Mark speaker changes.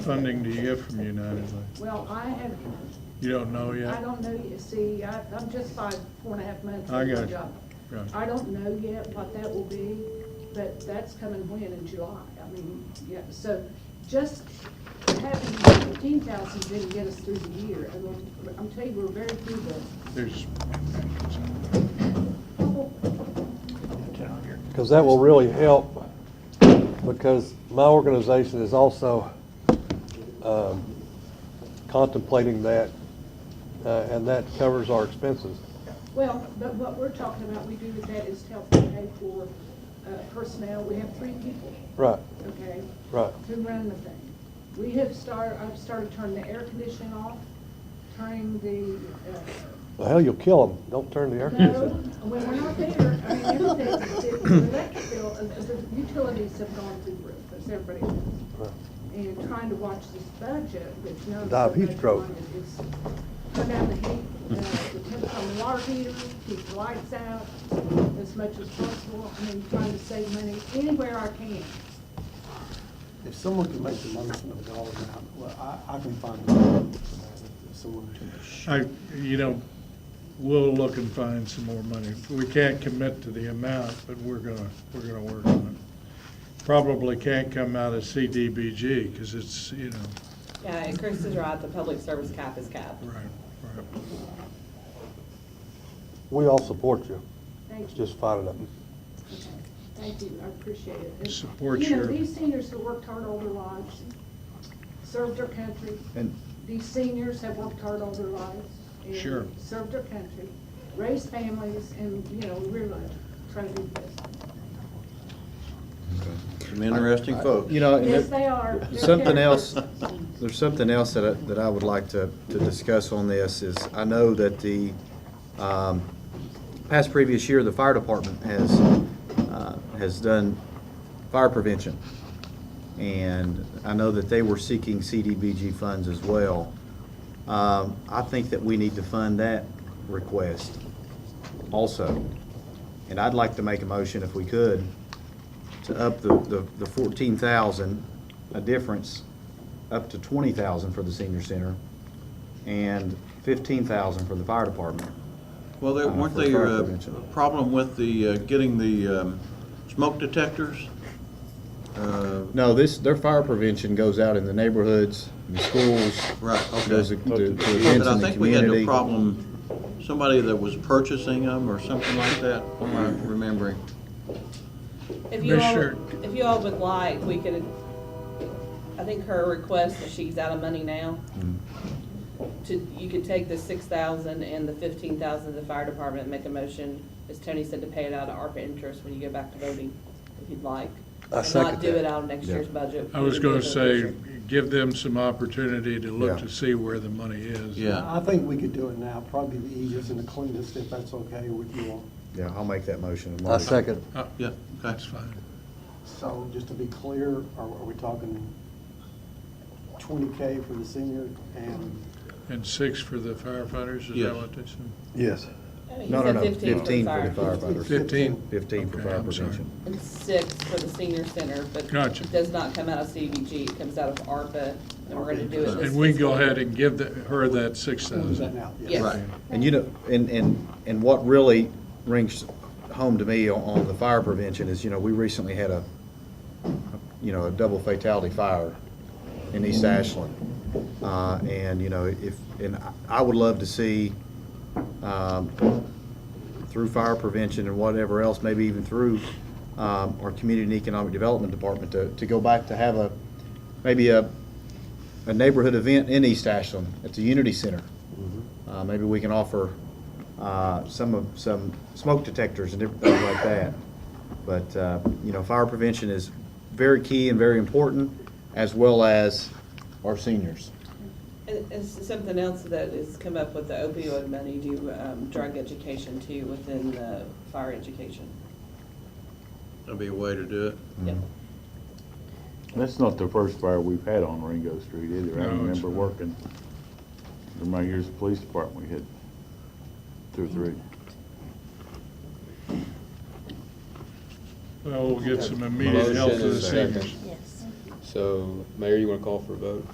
Speaker 1: funding do you get from United Way?
Speaker 2: Well, I have,
Speaker 1: You don't know yet?
Speaker 2: I don't know, yet. see, I, I'm just five, four and a half months
Speaker 1: I
Speaker 2: into
Speaker 1: got
Speaker 2: my
Speaker 1: you.
Speaker 2: job.
Speaker 1: Got you.
Speaker 2: I don't know yet what that will be, but that's coming when, in July, I mean, yeah, so just having fifteen thousand didn't get us through the year, and I'm- I'm telling you, we're very frugal.
Speaker 1: There's,
Speaker 3: Because that will really help, because my organization is also um, contemplating that, uh, and that covers our expenses.
Speaker 2: Well, but what we're talking about, we do with that is help to pay for uh, personnel, we have three people,
Speaker 3: Right,
Speaker 2: okay?
Speaker 3: right.
Speaker 2: to run the thing. We have started, I've started turning the air conditioning off, turning the, uh,
Speaker 3: Well, hell, you'll kill them. Don't turn the air
Speaker 2: no,
Speaker 3: conditioner.
Speaker 2: when we're not there, I mean, everything, the the electric bill, uh, the utilities have gone through the roof, as everybody knows.
Speaker 3: Right.
Speaker 2: And trying to watch this budget, which now.
Speaker 3: Die of heat stroke.
Speaker 2: It's Turn down the heat, uh, the temperature on the water heater, keep the lights out as much as possible, I mean, trying to save money anywhere I can.
Speaker 4: If someone can make the money from the dollar amount, well, I, I can find the money for that if someone can.
Speaker 1: I, you know, we'll look and find some more money. We can't commit to the amount, but we're gonna, we're gonna work on it. Probably can't come out of CDBG, because it's, you know,
Speaker 5: Yeah, and Chris is right, the public service cap is capped.
Speaker 1: right, right.
Speaker 3: We all support you.
Speaker 2: Thank
Speaker 3: It's
Speaker 2: you.
Speaker 3: just fighting them.
Speaker 2: Okay, Thank you, I appreciate it. And,
Speaker 1: Support
Speaker 2: You
Speaker 1: your-
Speaker 2: know, these seniors have worked hard all their lives, served their country.
Speaker 6: And-
Speaker 2: These seniors have worked hard all their lives. and
Speaker 1: Sure.
Speaker 2: Served their country, raised families, and, you know, really try to do this.
Speaker 7: Some interesting folks.
Speaker 6: You know, and
Speaker 2: Yes,
Speaker 6: there-
Speaker 2: they are. They're
Speaker 6: something else,
Speaker 2: characters.
Speaker 6: there's something else that I, that I would like to, to discuss on this is, I know that the, um, past previous year, the fire department has, uh, has done fire prevention. And I know that they were seeking CDBG funds as well. Um, I think that we need to fund that request also. And I'd like to make a motion, if we could, to up the, the, the fourteen thousand, a difference, up to twenty thousand for the senior center, and fifteen thousand for the fire department.
Speaker 7: Well, there-
Speaker 6: Uh,
Speaker 7: weren't
Speaker 6: for
Speaker 7: they
Speaker 6: fire
Speaker 7: uh,
Speaker 6: prevention.
Speaker 7: a problem with the, uh, getting the um, smoke detectors? Uh,
Speaker 6: No, this, their fire prevention goes out in the neighborhoods, in the schools.
Speaker 7: Right, okay.
Speaker 6: Goes to, to to
Speaker 7: Yeah,
Speaker 6: events
Speaker 7: But I
Speaker 6: in the
Speaker 7: think we had a
Speaker 6: community.
Speaker 7: problem, somebody that was purchasing them or something like that, am I remembering?
Speaker 5: If you all,
Speaker 1: Commissioner-
Speaker 5: if you all would like, we could, I think her request, that she's out of money now,
Speaker 6: Mm-hmm.
Speaker 5: to, you could take the six thousand and the fifteen thousand of the fire department, and make a motion, as Tony said, to pay it out of ARPA interest when you go back to voting, if you'd like.
Speaker 3: I
Speaker 5: And
Speaker 3: second
Speaker 5: Not do
Speaker 3: that.
Speaker 5: it out of next year's budget.
Speaker 1: I was gonna say,
Speaker 5: Sure.
Speaker 1: give them some opportunity to look
Speaker 6: Yeah.
Speaker 1: to see where the money is.
Speaker 7: Yeah,
Speaker 4: I think we could do it now, probably the easiest and the cleanest, if that's okay with you all.
Speaker 6: Yeah, I'll make that motion.
Speaker 3: I second.
Speaker 1: Uh,
Speaker 7: yeah, okay.
Speaker 1: That's fine.
Speaker 4: So just to be clear, are, are we talking twenty K for the senior and
Speaker 1: And six for the firefighters, is
Speaker 7: Yes.
Speaker 1: that what they said?
Speaker 3: Yes.
Speaker 5: He
Speaker 6: No, no,
Speaker 5: said
Speaker 6: no, fifteen for the
Speaker 5: fire.
Speaker 6: firefighters,
Speaker 1: Fifteen?
Speaker 6: fifteen for
Speaker 1: Okay,
Speaker 6: fire
Speaker 1: I'm sorry.
Speaker 6: prevention.
Speaker 5: And six for the senior center, but
Speaker 1: Gotcha.
Speaker 5: it does not come out of CDBG, it comes out of ARPA, and we're gonna do it this
Speaker 1: And we can go
Speaker 5: fiscal year.
Speaker 1: ahead and give the- her that six
Speaker 4: we'll do that
Speaker 1: thousand.
Speaker 4: now?
Speaker 5: Yes.
Speaker 7: Right.
Speaker 6: And you know, and, and, and what really rings home to me on, on the fire prevention is, you know, we recently had a, you know, a double fatality fire in East Ashland. Uh, and, you know, if, and I- I would love to see, um, through fire prevention and whatever else, maybe even through um, our Community and Economic Development Department to, to go back to have a, maybe a, a neighborhood event in East Ashland at the Unity Center. Uh, Maybe we can offer uh, some of, some smoke detectors and different things like that. But, uh, you know, fire prevention is very key and very important, as well as our seniors.
Speaker 5: And, and s- something else that has come up with the opioid money, do um, drug education too within the fire education.
Speaker 7: That'd be a way to do it.
Speaker 5: Yep.
Speaker 8: That's not the first fire we've had on Ringo Street either. I
Speaker 1: No, it's
Speaker 8: remember
Speaker 1: not.
Speaker 8: working, in my years at the police department, we had two or three.
Speaker 1: Well, we'll get some immediate
Speaker 9: Motion
Speaker 1: help to the
Speaker 9: is second.
Speaker 1: seniors.
Speaker 10: Yes.
Speaker 9: So, Mayor, you want to call for a vote?